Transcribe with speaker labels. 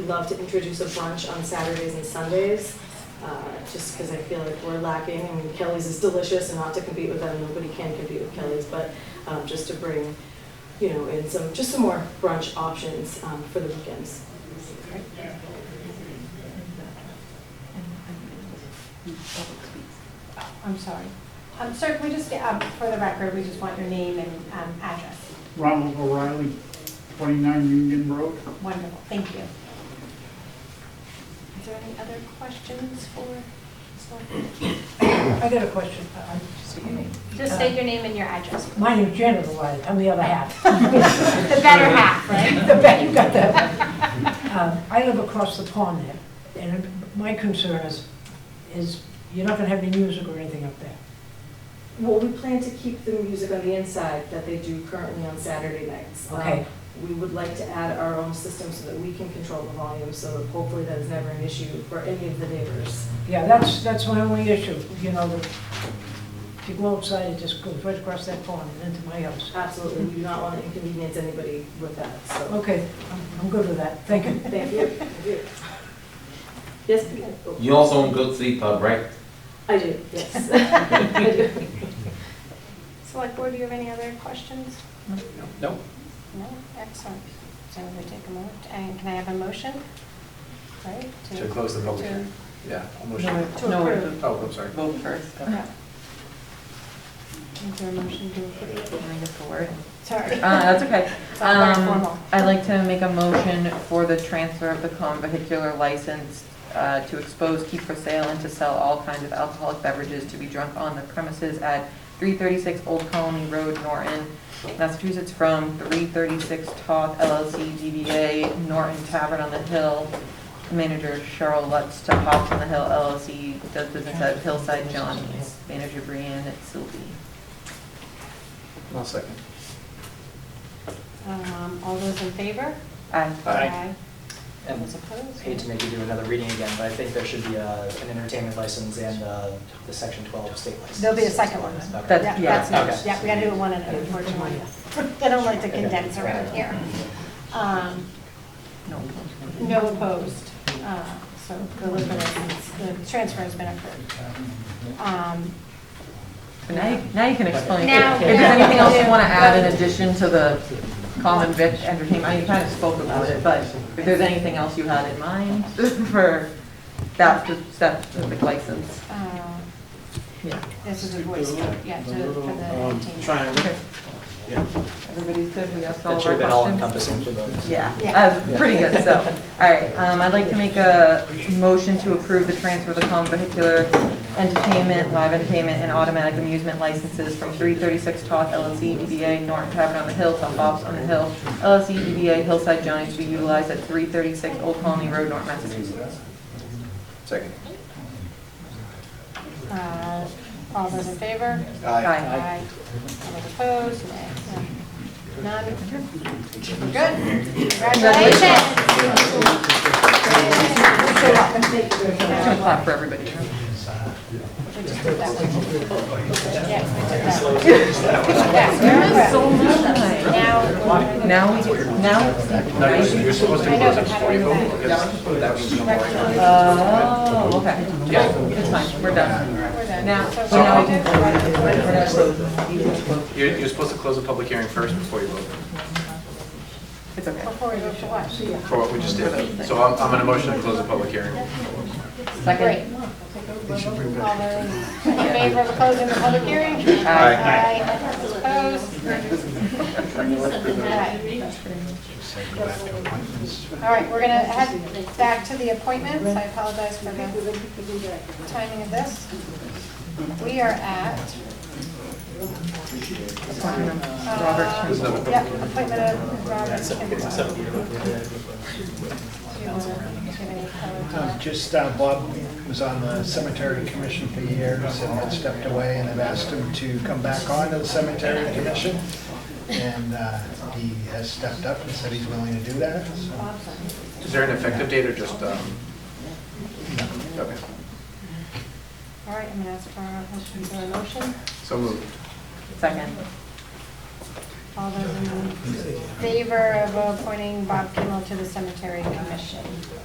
Speaker 1: love to introduce a brunch on Saturdays and Sundays, uh, just because I feel like we're lacking. I mean, Kelly's is delicious and not to compete with them, nobody can compete with Kelly's, but um, just to bring, you know, in some, just some more brunch options um, for the weekends.
Speaker 2: I'm sorry. Um, Sir, can we just, get, um, for the record, we just want your name and um, address.
Speaker 3: Ronald O'Reilly, 29 Union Road.
Speaker 2: Wonderful, thank you. Is there any other questions for Ms.
Speaker 4: I got a question. Uh, I'm-
Speaker 2: Just state your name and your address.
Speaker 4: My name's Jennifer Wiley, I'm the other half.
Speaker 2: The better half, right?
Speaker 4: The bet you got that. Um, I live across the pond there, and my concern is, is you're not gonna have any music or anything up there.
Speaker 1: Well, we plan to keep the music on the inside that they do currently on Saturday nights. Um,
Speaker 4: Okay.
Speaker 1: We would like to add our own system so that we can control the volume, so hopefully that is never an issue for any of the neighbors.
Speaker 4: Yeah, that's, that's my only issue, you know, the- if you go outside, it just goes right across that pond and into my house.
Speaker 1: Absolutely, we do not want to inconvenience anybody with that, so,
Speaker 4: Okay, I'm- I'm good with that, thank you.
Speaker 1: thank you. Thank you. Yes, Peter? Oh,
Speaker 5: You also own Good Sleep Pub, right?
Speaker 1: I do, yes. I do.
Speaker 2: Select Board, do you have any other questions?
Speaker 6: No.
Speaker 2: No, excellent. So we take a moment, and can I have a motion? Right?
Speaker 6: To close the public hearing? Yeah, I'll motion.
Speaker 2: To approve.
Speaker 6: Oh, I'm sorry.
Speaker 7: Vote first.
Speaker 2: Yeah. Is there a motion to approve?
Speaker 7: Can I get the word?
Speaker 2: Sorry.
Speaker 7: Uh, that's okay.
Speaker 2: Sounds very formal.
Speaker 7: Um, I'd like to make a motion for the transfer of the common vehicular license uh, to expose, keep for sale, and to sell all kinds of alcoholic beverages to be drunk on the premises at 336 Old Colony Road, Norton, Massachusetts, from 336 Toth LLC DBA Norton Tavern on the Hill. Manager Cheryl Lutz to Hops on the Hill LLC, does business at Hillside Johnny's. Manager Brianne at Sylvie.
Speaker 6: I'll second.
Speaker 2: Um, All those in favor?
Speaker 7: Aye.
Speaker 6: Aye.
Speaker 2: All
Speaker 8: And
Speaker 2: those opposed?
Speaker 8: hate to make you do another reading again, but I think there should be uh, an entertainment license and uh, the section 12 state license.
Speaker 2: There'll be a second one.
Speaker 8: Okay.
Speaker 2: Yeah,
Speaker 7: That's- yeah.
Speaker 2: that's next.
Speaker 8: Okay.
Speaker 2: Yeah, we gotta do it one at a unfortunately. They don't like to condense around here. Um,
Speaker 7: No.
Speaker 2: No opposed. Uh, So the liquor license, the transfer has been approved. Um,
Speaker 7: Now, you- now you can explain.
Speaker 2: Now-
Speaker 7: If there's anything else you want to
Speaker 2: Yeah.
Speaker 7: add in addition to the common vic entertainment, I mean, you kind of spoke about it, but if there's anything else you had in mind for that specific license,
Speaker 2: uh,
Speaker 7: yeah.
Speaker 2: This is a voice vote, yeah, to- for the team.
Speaker 7: Everybody's good, we asked all
Speaker 8: That
Speaker 7: of
Speaker 8: should have
Speaker 7: our
Speaker 8: been all
Speaker 7: questions?
Speaker 8: encompassing for those.
Speaker 7: Yeah,
Speaker 2: Yeah.
Speaker 7: uh, pretty good, so, all right, um, I'd like to make a motion to approve the transfer of the common vehicular entertainment, live entertainment, and automatic amusement licenses from three thirty-six Toth LLC DBA Norton Tavern on the Hill to Hops on the Hill LLC DBA Hillside Johnny's to be utilized at three thirty-six Old Colony Road, North Massachusetts.
Speaker 6: Second.
Speaker 2: Uh, All those in favor?
Speaker 7: Aye.
Speaker 2: Aye. All those opposed? Nay. No. None? We're good. Congratulations.
Speaker 7: Just clap for everybody.
Speaker 2: We just did that one. Yes, we did that one. Yes, very good. Now, we're-
Speaker 7: Now, we do- now,
Speaker 6: You're supposed
Speaker 2: I know, but how do we go back?
Speaker 7: oh, okay, it's fine, we're done.
Speaker 2: We're done.
Speaker 7: Now,
Speaker 2: So
Speaker 7: so now we
Speaker 2: we're
Speaker 7: can.
Speaker 2: done.
Speaker 7: we're not closing.
Speaker 6: You're, you're supposed to close the public hearing first before you vote,
Speaker 7: It's okay.
Speaker 2: Before we go to watch.
Speaker 6: for what we just did. So I'm, I'm going to motion to close the public hearing.
Speaker 2: Great.
Speaker 7: Second.
Speaker 2: All those in favor of closing the public hearing?
Speaker 7: Aye.
Speaker 2: Aye. Opposed? Aye. All right, we're gonna head back to the appointments. I apologize for the timing of this. We are at,
Speaker 7: Robert Turnbull.
Speaker 2: uh, yep, appointment of Robert Kimball. Do you want to give any color to
Speaker 9: Uh,
Speaker 2: that?
Speaker 9: Just uh, Bob was on the cemetery commission for years and had stepped away, and I've asked him to come back on to the cemetery commission. And uh, he has stepped up and said he's willing to do that, so.
Speaker 6: Is there an effective date or just, um? Okay,
Speaker 2: All right, I'm gonna ask for a motion for a motion.
Speaker 6: so moved.
Speaker 7: Second.
Speaker 2: All those in favor of appointing Bob Kimmel to the cemetery commission?